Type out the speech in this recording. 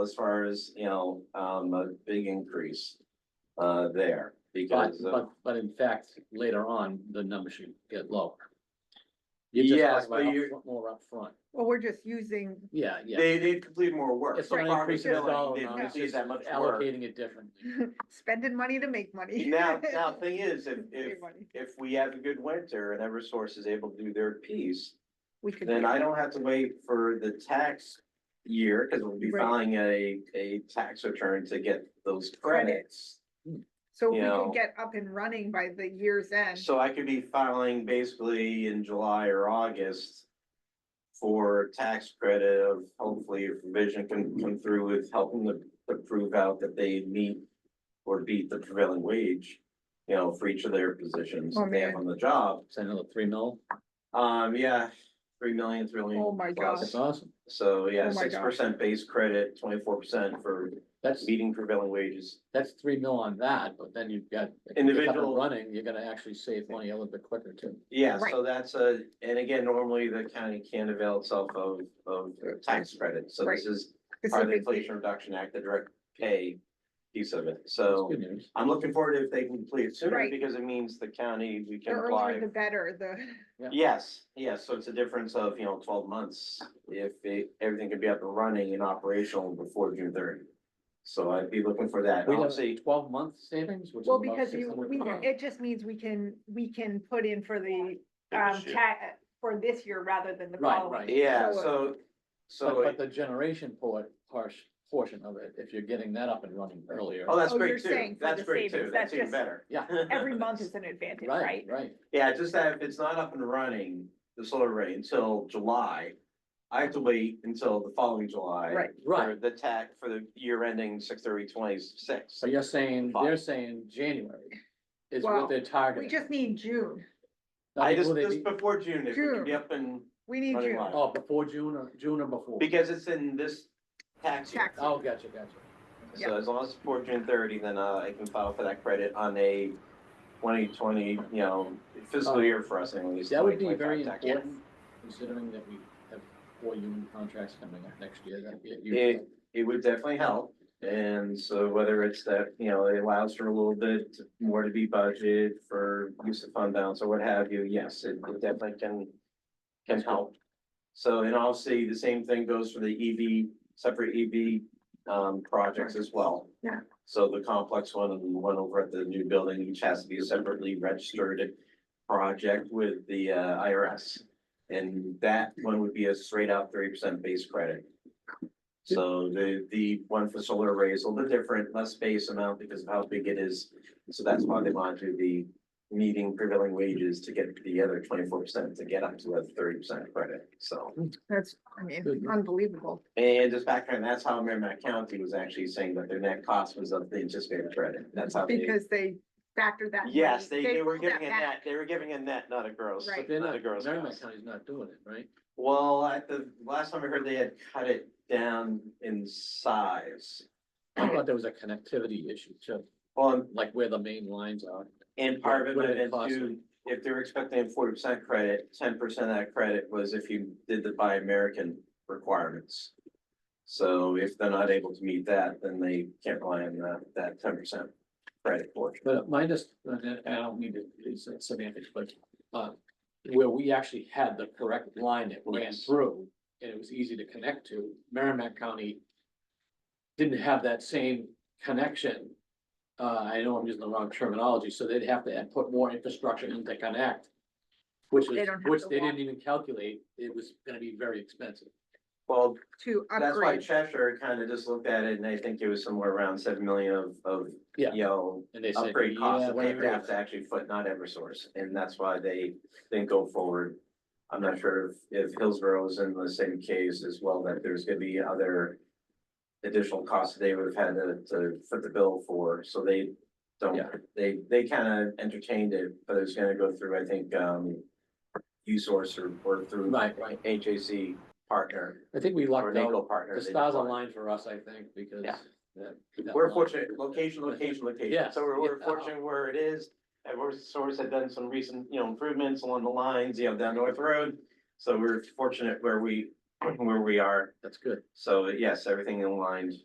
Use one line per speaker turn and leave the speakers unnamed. as far as, you know, um, a big increase uh, there
But,
because uh, of.
but, but in fact, later on, the number should get lower. You just
Yes,
talked
but
about
you,
upfront- More upfront,
Well, we're just using,
yeah, yeah.
they, they completed more work.
It's
For
not an increase in the
farmers,
dollar
they
amount,
didn't
it's
do
just
that much work.
allocating it differently.
spending money to make money.
Now, now, thing is, if, if,
Save money.
if we have a good winter and EverSource is able to do their piece,
We could.
then
do
I
it.
don't have to wait for the tax year, because we'll be
Right.
filing a, a tax return to get those credits.
Credits. So
you
if we
know.
could get up and running by the year's end.
So I could be filing basically in July or August for tax credit of hopefully if revision can come through with helping to, to prove out that they meet or beat the prevailing wage, you know, for each of their positions
Oh,
that they have
man.
on the job.
Is that another three mil?
Um, yeah, three million, three
Oh,
million.
my
plus.
gosh.
That's awesome.
So, yeah,
Oh, my
six percent base credit, twenty-four percent for
That's,
meeting prevailing wages.
that's three mil on that, but then you've got. if you get up and
Individual-
Running, you're gonna actually save money a little bit quicker too.
Yeah,
Right.
so that's a, and again, normally the county can not avail itself of, of tax credits. So this
Right.
is
This
part
is
of the
big-
Inflation Reduction Act, the direct pay piece of it.
That's
So
good news.
I'm looking forward to if they can complete it sooner
Right.
because it means the county, we
The
can
earlier
apply.
the better, the,
Yes, yes. So it's a difference of, you know, twelve months if it- everything can be up and running and operational before June thirty. So I'd be looking for that.
We have
Obviously,
twelve month savings, which is
well,
about
because
six
you,
hundred.
we, it just means we can, we can put in for the,
Yeah,
um,
this year.
ta- for this year rather than the
Right,
following.
right.
yeah,
So, uh,
so, so,
But, but
it-
the generation port, harsh portion of it, if you're getting that up and running earlier.
oh, that's
Oh, you're
great too.
saying for
That's
the
great too.
savings.
That's
That's
even
just-
better.
Yeah.
Every month is an advantage,
Right,
right?
right.
Yeah, just that if it's not up and running, the solar array until July, I have to wait until the following July.
Right.
For the tax, for the year ending six thirty twenty-six.
So you're saying,
Fine.
they're saying January is
Well,
what they're targeting.
We just need June.
Not
I just,
will they
just
be-
before June, if we could be
June.
up and,
We need
Running
June.
line.
Oh, before June or, June or before?
because it's in this tax year.
Tax.
Oh, gotcha, gotcha.
So as long as it's before June thirty, then uh, I can file for that credit on a twenty twenty, you know, fiscal year for us anyways.
Uh, That would be
2025
very
tax year.
important, considering that we have four union contracts coming up next year. That'd be a huge
It-
help.
it would definitely help. And so whether it's that, you know, it allows for a little bit more to be budgeted for use of fund balance or what have you, yes, it it definitely can, can help. So, and obviously, the same thing goes for the EV, separate EV, um, projects as well.
Yeah.
So the complex one and the one over at the new building, each has to be a separately registered project with the uh, IRS. And that one would be a straight out thirty percent base credit. So the, the one for solar array is a little bit different, less base amount because of how big it is. So that's why they want to be meeting prevailing wages to get the other twenty-four percent to get up to a thirty percent credit, so.
That's, I mean, unbelievable.
And just background, that's how Merrimack County was actually saying that their net cost was of the anticipated credit, that's how they.
Because they factored that.
Yes,
money-
they, they were
pulled that
giving a
back.
net, they were giving a net, not a gross,
Right.
But they're
not
not,
a gross.
Merrimack
cost.
County's not doing it, right?
Well, at the, last time I heard, they had cut it down in size,
I thought there was a connectivity issue too,
well, and
like where the main lines are.
And part of it
What
would
did it
have been
cost
too, if they were expecting a forty percent credit, ten percent of that credit was if you did the buy American requirements. So if they're not able to meet that, then they can't rely on that, that ten percent credit portion.
But uh, minus, and I don't mean to, it's semantics, but, uh, where we actually had the correct line that ran
Yes.
through, and it was easy to connect to, Merrimack County didn't have that same connection. Uh, I know I'm using the wrong terminology, so they'd have to add- put more infrastructure in to connect, which
They
is,
don't have
which
the
they
wa-
didn't even calculate, it was gonna be very expensive.
Well,
To
that's why
upgrade.
Cheshire kind of just looked at it and I think it was somewhere around seven million of, of,
Yeah.
you know,
And they said.
upgrade costs
yeah,
that
we're
they
not
would have
doing
to
that.
actually foot, not Eversource, and that's why they didn't go forward. I'm not sure if, if Hillsborough is in the same case as well, that there's gonna be other additional costs they would have had to, to foot the bill for, so they don't,
Yeah.
they, they kind of entertained it, but it's gonna go through, I think, um, U-Source or, or through
Right, right,
HAC partner,
I think we
or
lucked out.
NACO partner.
The
they
stars
deploy.
aligned for us, I think, because.
Yeah.
that- that
We're
line-
fortunate, location, location, location,
Yes.
so we're, we're
Yeah.
fortunate where it is. And we're source had done some recent, you know, improvements along the lines, you know, down North Road. So we're fortunate where we, where we are,
That's good.
so yes, everything aligned